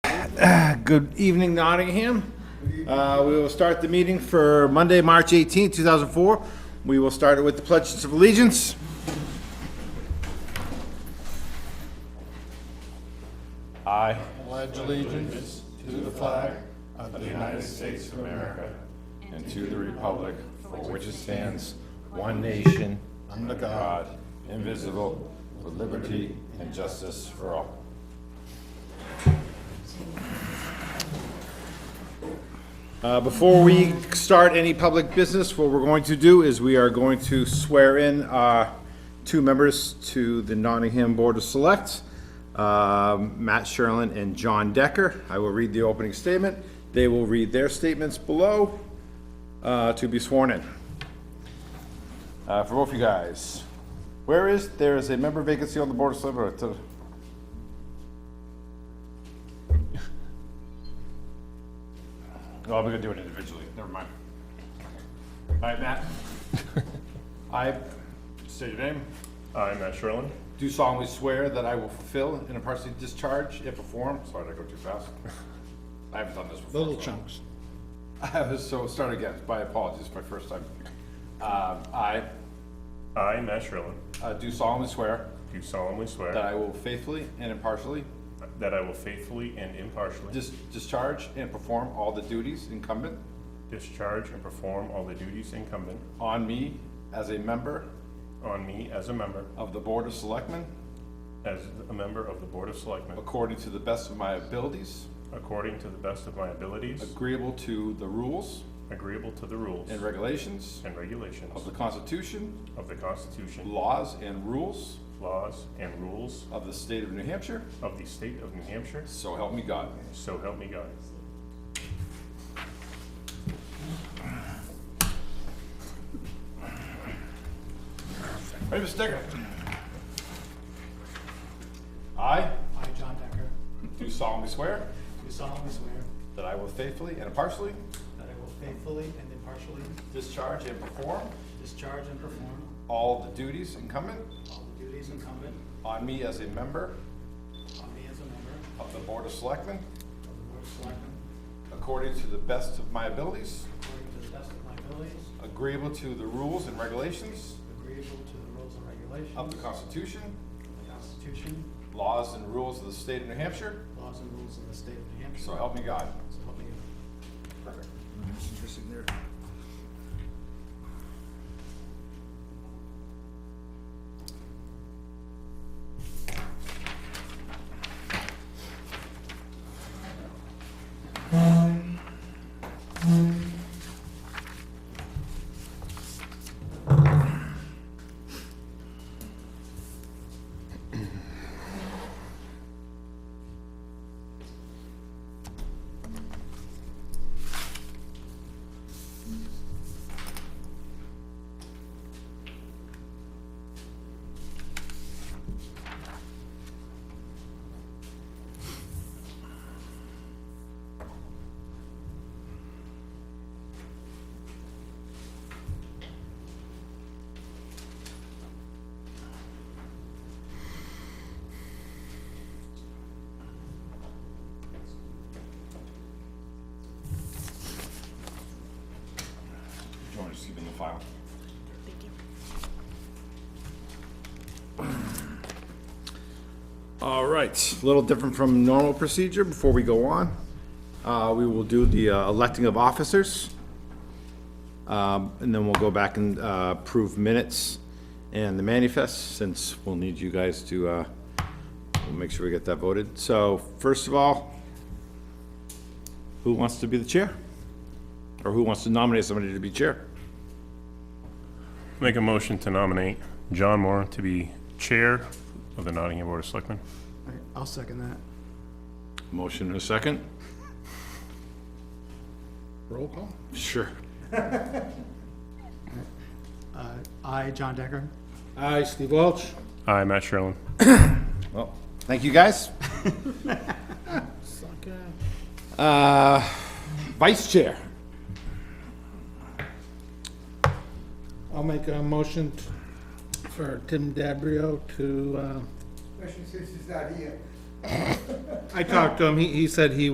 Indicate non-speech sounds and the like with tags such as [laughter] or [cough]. Good evening, Nottingham. Uh, We will start the meeting for Monday, March 18, 2004. We will start it with the pledges of allegiance. I, pledge allegiance to the flag of the United States of America, and to the republic for which it stands, one nation, under God, God, indivisible, with liberty and justice for all. Uh, Before we start any public business, what we're going to do is we are going to swear in uh, two members to the Nottingham Board of Select, um, Matt Sherlin and John Decker. I will read the opening statement. They will read their statements below uh, to be sworn in. Uh, For both you guys, where is, there is a member vacancy on the Board of Select. uh, No, we're gonna do it individually, never mind. All right, [laughs] Matt. I state your name. I, Matt Sherlin, Do solemnly swear that I will fulfill and impartially discharge, if performed, sorry, did I go too [laughs] fast? I haven't done this before. little so- chunks. [laughs] I was, so start again, my apologies, my first time. Um, I I, Matt Sherlin, uh, do solemnly swear do solemnly that swear I will faithfully and impartially that I will faithfully and impartially dis- discharge and perform all the duties incumbent discharge and perform all the duties incumbent on me as a member on me as a member, of the Board of Selectmen as a member of the Board of Selectmen, according to the best of my abilities, according to the best of my abilities, agreeable to the rules agreeable to the rules and regulations and regulations of the Constitution, of the Constitution, laws, and rules laws, and rules of the state of New Hampshire, of the state of New Hampshire, so help me God. so help me God. Ready, Mr. Decker? I I, John Decker, do solemnly swear do solemnly swear that I will faithfully and impartially that I will faithfully and impartially discharge and perform discharge and perform all the duties incumbent all the duties incumbent on me as a member on me as a member of the Board of Selectmen of the Board of Selectmen according to the best of my abilities, according to the best of my abilities, agreeable to the rules and regulations agreeable to the rules and regulations of the Constitution, of the Constitution, laws and rules of the state of New Hampshire, laws and rules of the state of New Hampshire. so help me God. So help me God. Do you want to just keep in the file? [clears throat] All right, a little different from normal procedure. Before we go on, uh, we will do the uh, electing of officers. Um, And then we'll go back and uh, approve minutes and the manifest, since we'll need you guys to, uh, we'll make sure we get that voted. So first of all, who wants to be the chair? Or who wants to nominate somebody to be chair? Make a motion to nominate John Moore to be Chair of the Nottingham Board of Selectmen. I'll second that. Motion and a second? Roll call? Sure. I, John Decker, Aye, Steve Welch. I, Matt Sherlin. Well, thank you, guys. Uh, Vice Chair, I'll make a motion t- for Tim Dabrio to, uh, especially since he's not here. I talked to him, he, he said he